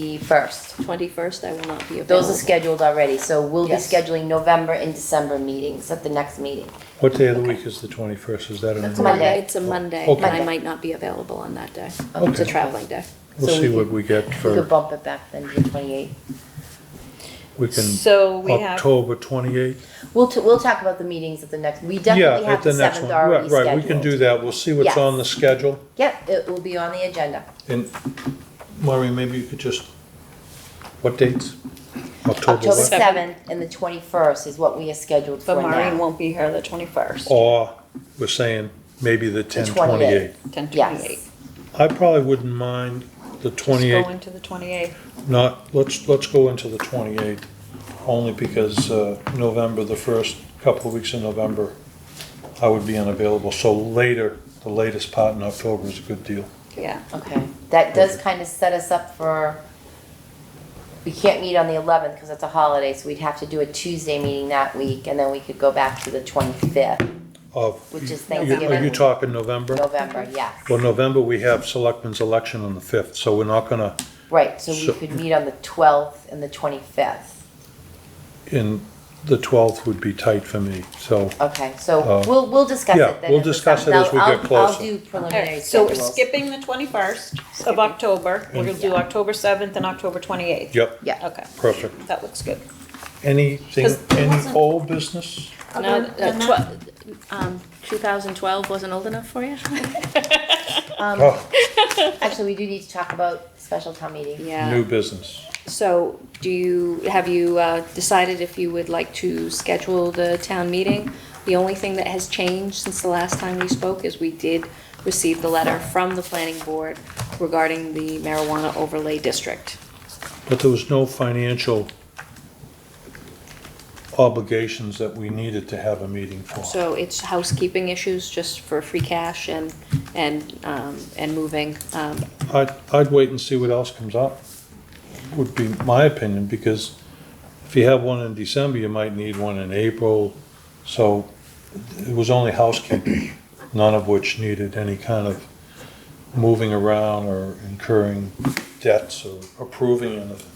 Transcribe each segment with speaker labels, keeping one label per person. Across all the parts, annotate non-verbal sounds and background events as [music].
Speaker 1: 21st.
Speaker 2: 21st, I will not be available.
Speaker 1: Those are scheduled already, so we'll be
Speaker 2: Yes.
Speaker 1: scheduling November and December meetings at the next meeting.
Speaker 3: What day of the week is the 21st? Is that on?
Speaker 1: That's
Speaker 3: a-
Speaker 1: Monday.
Speaker 2: It's a Monday,
Speaker 3: Okay.
Speaker 2: and I might not be available on that day. It's a
Speaker 3: Okay.
Speaker 2: traveling day.
Speaker 3: We'll
Speaker 1: So
Speaker 3: see
Speaker 1: we
Speaker 3: what
Speaker 1: could-
Speaker 3: we get
Speaker 1: We could
Speaker 3: for,
Speaker 1: bump it back then to the 28th.
Speaker 3: we can,
Speaker 4: So we have-
Speaker 3: October 28th?
Speaker 1: We'll, t- we'll talk about the meetings at the next, we
Speaker 3: Yeah,
Speaker 1: definitely have
Speaker 3: at
Speaker 1: the
Speaker 3: the next
Speaker 1: 7th
Speaker 3: one.
Speaker 1: already
Speaker 3: Right,
Speaker 1: scheduled.
Speaker 3: right, we can do that. We'll see what's
Speaker 1: Yes.
Speaker 3: on the schedule.
Speaker 1: Yep, it will be on the agenda.
Speaker 3: And Maureen, maybe you could just, what dates? October
Speaker 1: October
Speaker 3: what?
Speaker 4: seventh.
Speaker 1: 7th and the 21st is what we are scheduled for
Speaker 4: But Maureen
Speaker 1: now.
Speaker 4: won't be here the twenty-first,
Speaker 3: Or we're saying maybe the 10/28.
Speaker 1: 28th.
Speaker 4: ten twenty-eight.
Speaker 1: Yes.
Speaker 3: I probably wouldn't mind the
Speaker 4: Just
Speaker 3: 28th
Speaker 4: go into the twenty-eighth.
Speaker 3: Not, let's, let's go into the 28th, only because uh, November, the first couple of weeks in November, I would be unavailable, so later, the latest part in October is a good deal.
Speaker 4: Yeah,
Speaker 1: Okay, that does kind of set us up for, we can't meet on the 11th because it's a holiday, so we'd have to do a Tuesday meeting that week, and then we could go back to the 25th,
Speaker 3: Of,
Speaker 1: Which is
Speaker 3: you- Are
Speaker 1: Thanksgiving.
Speaker 3: you talking November?
Speaker 1: November, yes.
Speaker 3: Well, November, we have selectmen's election on the 5th, so we're not gonna,
Speaker 1: Right, so we
Speaker 3: So-
Speaker 1: could meet on the 12th and the 25th.
Speaker 3: in, the 12th would be tight for me, so,
Speaker 1: Okay, so
Speaker 3: Uh,
Speaker 1: we'll, we'll discuss it
Speaker 3: yeah,
Speaker 1: then.
Speaker 3: we'll
Speaker 1: at the
Speaker 3: discuss
Speaker 1: seventh.
Speaker 3: it as we
Speaker 1: I'll-
Speaker 3: get
Speaker 1: I'll-
Speaker 3: closer.
Speaker 1: I'll do preliminary
Speaker 4: alright, so we're
Speaker 1: schedules.
Speaker 4: skipping the twenty-first of October, we're gonna do October seventh and October twenty-eighth.
Speaker 3: yep,
Speaker 1: Yeah.
Speaker 4: Okay,
Speaker 3: perfect.
Speaker 4: that looks good.
Speaker 3: Anything,
Speaker 4: Does-
Speaker 3: any old business?
Speaker 2: No, uh, tw- um, 2012 wasn't old enough
Speaker 4: [laughs]
Speaker 2: for you?
Speaker 1: Um,
Speaker 3: Oh,
Speaker 1: Actually, we do need to talk about special town meeting.
Speaker 3: new
Speaker 2: Yeah.
Speaker 3: business.
Speaker 2: So do you, have you uh, decided if you would like to schedule the town meeting? The only thing that has changed since the last time we spoke is we did receive the letter from the planning board regarding the marijuana overlay district.
Speaker 3: But there was no financial obligations that we needed to have a meeting for.
Speaker 2: So it's housekeeping issues just for free cash and, and, um, and moving. Um,
Speaker 3: I'd, I'd wait and see what else comes up, would be my opinion, because if you have one in December, you might need one in April. So it was only housekeeping, none of which needed any kind of moving around or incurring debts or approving anything.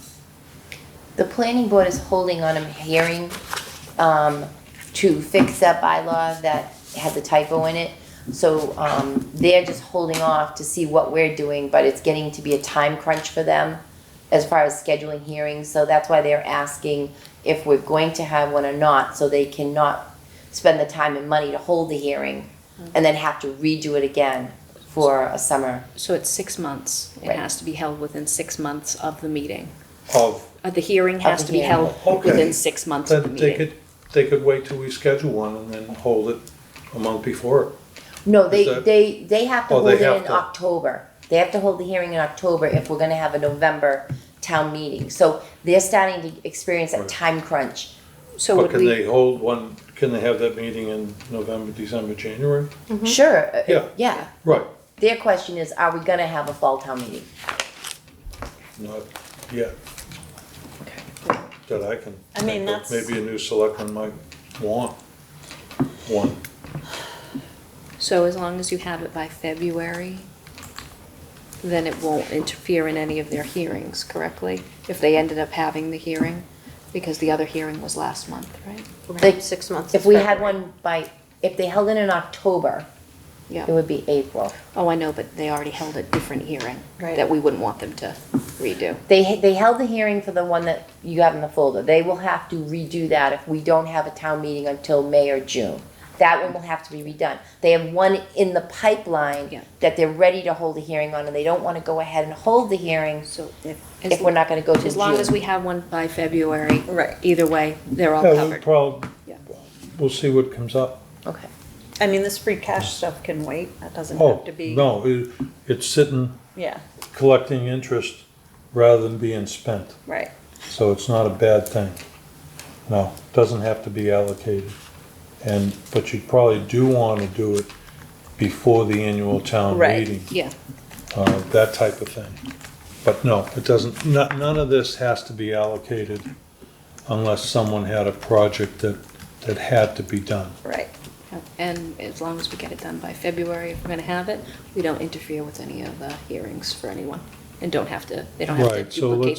Speaker 1: The planning board is holding on a hearing, um, to fix that bylaw that had the typo in it. So, um, they're just holding off to see what we're doing, but it's getting to be a time crunch for them as far as scheduling hearings, so that's why they're asking if we're going to have one or not, so they cannot spend the time and money to hold the hearing and then have to redo it again for a summer.
Speaker 2: So it's six months. It
Speaker 1: Right.
Speaker 2: has to be held within six months of the meeting.
Speaker 3: Of,
Speaker 2: Uh, The hearing has
Speaker 1: the
Speaker 2: to be
Speaker 1: hearing.
Speaker 2: held
Speaker 3: Okay.
Speaker 2: within six months of the
Speaker 3: then they
Speaker 2: meeting.
Speaker 3: could, they could wait till we schedule one and then hold it a month before.
Speaker 1: No, they,
Speaker 3: Is that-
Speaker 1: they, they have to
Speaker 3: Oh,
Speaker 1: hold
Speaker 3: they
Speaker 1: it
Speaker 3: have
Speaker 1: in
Speaker 3: to.
Speaker 1: October. They have to hold the hearing in October if we're gonna have a November town meeting. So they're starting to experience that
Speaker 3: Right.
Speaker 1: time crunch.
Speaker 2: So
Speaker 3: But
Speaker 2: would
Speaker 3: can
Speaker 2: we,
Speaker 3: they hold one, can they have that meeting in November, December, January?
Speaker 1: Sure, uh,
Speaker 3: Yeah.
Speaker 1: yeah.
Speaker 3: Right.
Speaker 1: Their question is, are we gonna have a fall town meeting?
Speaker 3: Not yet. That I can.
Speaker 4: I mean,
Speaker 3: think of.
Speaker 4: that's-
Speaker 3: Maybe a new selectman might want one.
Speaker 2: so as long as you have it by February, then it won't interfere in any of their hearings, correctly? If they ended up having the hearing, because the other hearing was last month, right?
Speaker 1: Like,
Speaker 4: six months.
Speaker 1: If we had one by, if they held it in October, it
Speaker 2: Yeah.
Speaker 1: would be April.
Speaker 2: Oh, I know, but they already held a different hearing
Speaker 4: Right.
Speaker 2: that we wouldn't want them to redo.
Speaker 1: They, they held the hearing for the one that you have in the folder. They will have to redo that if we don't have a town meeting until May or June. That one will have to be redone. They have one in the
Speaker 2: Yeah.
Speaker 1: pipeline that they're ready to hold a hearing on, and they don't wanna go ahead and hold the hearing
Speaker 2: So if.
Speaker 1: if we're not gonna go to June.
Speaker 2: As long as we have one by February.
Speaker 4: Right.
Speaker 2: Either way, they're all
Speaker 3: Yeah, we'll
Speaker 2: covered.
Speaker 3: probably,
Speaker 2: Yeah.
Speaker 3: we'll see what comes up.
Speaker 1: Okay,
Speaker 4: I mean, this free cash stuff can wait, that doesn't
Speaker 3: Oh,
Speaker 4: have to be.
Speaker 3: no, it- it's sitting,
Speaker 4: Yeah,
Speaker 3: collecting interest rather than being spent.
Speaker 4: right,
Speaker 3: So it's not a bad thing. No, doesn't have to be allocated. And, but you probably do want to do it before the annual town
Speaker 4: Right.
Speaker 3: meeting.
Speaker 2: Yeah,
Speaker 3: uh, that type of thing. But no, it doesn't, no- none of this has to be allocated unless someone had a project that, that had to be done.
Speaker 4: right.
Speaker 2: and as long as we get it done by February, if we're gonna have it, we don't interfere with any of the hearings for anyone.
Speaker 3: and don't have to, they don't have to
Speaker 2: Right, so let's-
Speaker 3: duplicate